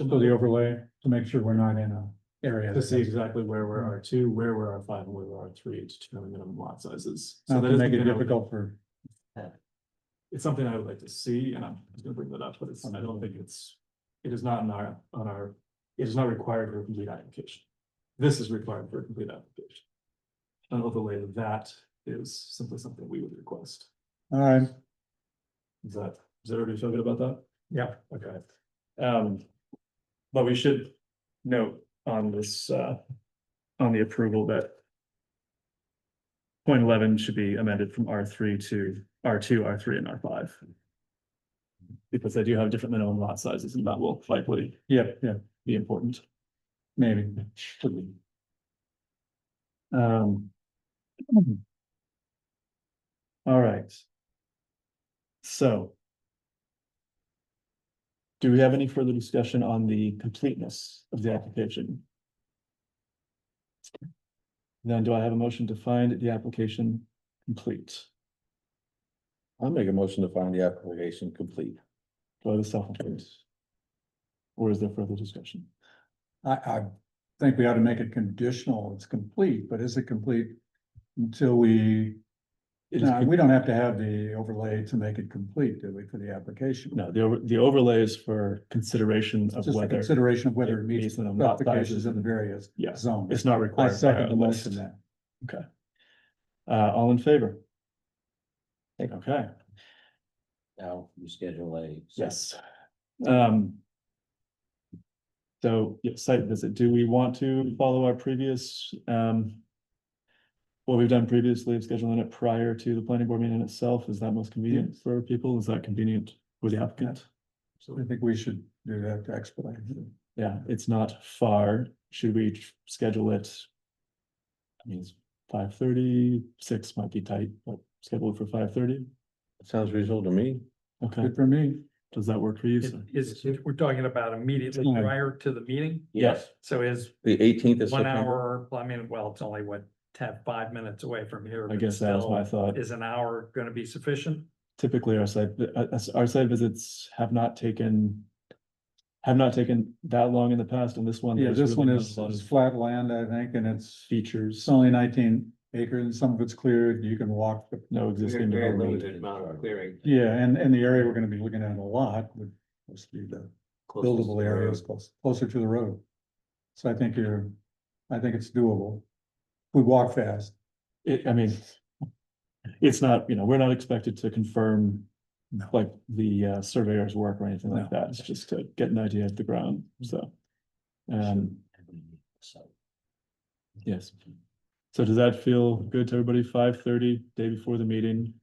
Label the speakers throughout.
Speaker 1: So the overlay to make sure we're not in a area.
Speaker 2: To
Speaker 1: that
Speaker 2: see
Speaker 1: has-
Speaker 2: exactly where we're R two, where we're R five, and where we're R three to determine minimum lot sizes. So
Speaker 1: Not
Speaker 2: that
Speaker 1: to
Speaker 2: is
Speaker 1: make it
Speaker 2: something I would-
Speaker 1: difficult for,
Speaker 2: It's something I would like to see, and I'm just gonna bring that up, but it's, I don't think it's, it is not on our, on our, it is not required for a complete application. This is required for a complete application. An overlay of that is simply something we would request.
Speaker 1: all right,
Speaker 2: Is that, does everybody feel good about that?
Speaker 1: Yeah.
Speaker 2: Okay. Um, but we should note on this, uh, on the approval that point eleven should be amended from R three to R two, R three, and R five. Because they do have different minimum lot sizes, and that will likely
Speaker 1: yeah, yeah,
Speaker 2: be important.
Speaker 1: maybe.
Speaker 2: Um. All right. So. Do we have any further discussion on the completeness of the application? Then do I have a motion to find the application complete?
Speaker 3: I'll make a motion to find the application complete.
Speaker 2: Do I have a second? Or is there further discussion?
Speaker 1: I, I think we ought to make it conditional, it's complete, but is it complete until we,
Speaker 2: It is,
Speaker 1: no, we don't have to have the overlay to make it complete, do we, for the application?
Speaker 2: no, the, over- the overlay is for consideration of
Speaker 1: Just a
Speaker 2: whether,
Speaker 1: consideration of whether
Speaker 2: it
Speaker 1: it meets
Speaker 2: meets
Speaker 1: the
Speaker 2: the lot
Speaker 1: specifications
Speaker 2: sizes
Speaker 1: of the
Speaker 2: and-
Speaker 1: various
Speaker 2: yeah,
Speaker 1: zones.
Speaker 2: it's not
Speaker 1: I
Speaker 2: required. by our
Speaker 1: second the
Speaker 2: list.
Speaker 1: motion then.
Speaker 2: Uh, all in favor? Okay,
Speaker 3: Now, you schedule a.
Speaker 2: yes. Um. So, yeah, site visit, do we want to follow our previous, um. What we've done previously, of scheduling it prior to the planning board meeting itself, is that most convenient for people, is that convenient with the applicant?
Speaker 1: I think we should do that to expedite. it.
Speaker 2: Yeah, it's not far, should we tr- schedule it? I mean, it's five thirty, six might be tight, but schedule it for five thirty,
Speaker 3: Sounds reasonable to me.
Speaker 2: okay,
Speaker 1: Good for me.
Speaker 2: does that work for you?
Speaker 4: Is,
Speaker 2: sir?
Speaker 4: is, if we're talking about immediately
Speaker 1: Time.
Speaker 4: prior to the meeting,
Speaker 2: Yes.
Speaker 4: so is
Speaker 3: The eighteenth is
Speaker 4: one
Speaker 3: September.
Speaker 4: hour, well, I mean, well, it's only what, ten, five minutes away from here.
Speaker 2: I
Speaker 4: but
Speaker 2: guess that was
Speaker 4: still,
Speaker 2: my thought.
Speaker 4: Is an hour gonna be sufficient?
Speaker 2: Typically, our site, vi- uh, uh, our site visits have not taken. Have not taken that long in the past, and this one.
Speaker 1: Yeah,
Speaker 2: there's
Speaker 1: this
Speaker 2: really
Speaker 1: one
Speaker 2: not
Speaker 1: is,
Speaker 2: a lot
Speaker 1: is
Speaker 2: of
Speaker 1: flat land, I think, and it's, it's
Speaker 2: Features,
Speaker 1: only nineteen acres and some of it's cleared. You can walk. the-
Speaker 2: no existing. development.
Speaker 3: amount of clearing.
Speaker 1: Yeah, and, and the area we're gonna be looking at a lot would must be the buildable areas close, closer to the road. So I think you're, I think it's doable. We walk fast.
Speaker 2: It, I mean. It's not, you know, we're not expected to confirm.
Speaker 1: No.
Speaker 2: Like the uh, surveyor's work or anything like
Speaker 1: No. Mm-hmm.
Speaker 2: that, it's just to get an idea of the ground, so. Um, yes. So does that feel good to everybody? Five thirty, day before the meeting,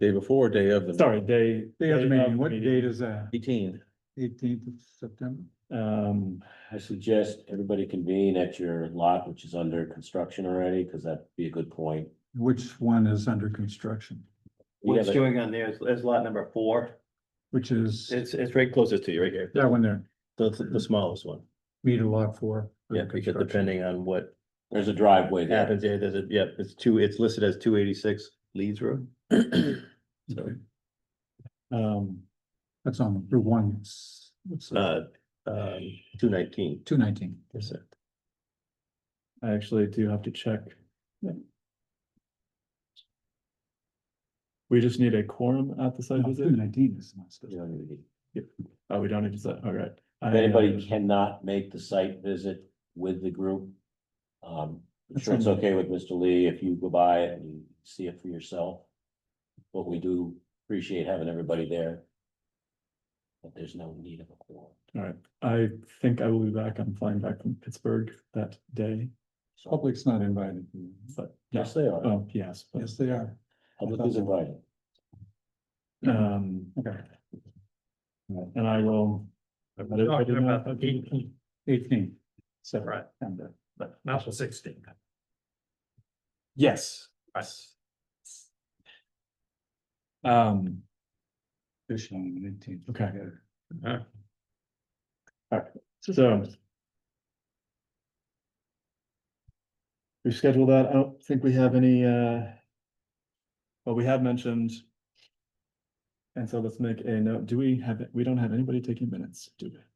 Speaker 3: Day before, day of the.
Speaker 2: sorry, day.
Speaker 1: Day of the meeting,
Speaker 2: the
Speaker 1: what date is that?
Speaker 3: Eighteen.
Speaker 1: Eighteenth of September?
Speaker 2: Um,
Speaker 5: I suggest everybody convene at your lot, which is under construction already, because that'd be a good point.
Speaker 1: Which one is under construction?
Speaker 5: We
Speaker 6: What's
Speaker 5: have a-
Speaker 6: showing on there is, is lot number four.
Speaker 1: Which is
Speaker 6: It's, it's right closest to you, right here.
Speaker 1: that one there,
Speaker 6: The, the smallest one.
Speaker 1: meter lot four. under
Speaker 6: Yeah, because
Speaker 1: construction.
Speaker 6: depending on what
Speaker 5: There's a driveway there.
Speaker 6: happens there, there's a, yeah, it's two, it's listed as two eighty-six Leeds Road. So,
Speaker 1: Okay.
Speaker 2: um,
Speaker 1: That's on Route one. It's- what's that?
Speaker 6: uh, um, two nineteen.
Speaker 1: Two nineteen.
Speaker 2: I actually do have to check. We just need a quorum at the site
Speaker 1: Oh, Two
Speaker 2: visit.
Speaker 1: nineteen is not supposed
Speaker 5: You
Speaker 1: to-
Speaker 5: know, if
Speaker 2: Oh, we don't need to, say- all right. I, uh,
Speaker 5: Anybody cannot make the site visit with the group. Um, I'm sure it's okay with Mr. Lee if you go by it and see it for yourself. But we do appreciate having everybody there. But there's no need of a quorum.
Speaker 2: All right, I think I will be back. I'm flying back from Pittsburgh that day,
Speaker 5: So-
Speaker 1: Public's not invited.
Speaker 2: but
Speaker 5: Yes,
Speaker 2: yes,
Speaker 5: they are.
Speaker 2: oh, yes, but
Speaker 1: Yes, they are.
Speaker 5: Public is invited.
Speaker 2: um.
Speaker 1: Okay.
Speaker 2: And I will. I've got it- I
Speaker 4: Talking
Speaker 2: did not-
Speaker 4: about the eighteenth,
Speaker 1: Eighteen. September.
Speaker 4: right, not the sixteenth.
Speaker 2: Yes. Um,
Speaker 1: Fish on the eighteenth.
Speaker 2: Okay.
Speaker 4: Uh-huh.
Speaker 2: All right, so. We scheduled that. I don't think we have any, uh. Well, we have mentioned. And so let's make a note. Do we have, we don't have anybody taking minutes, do we?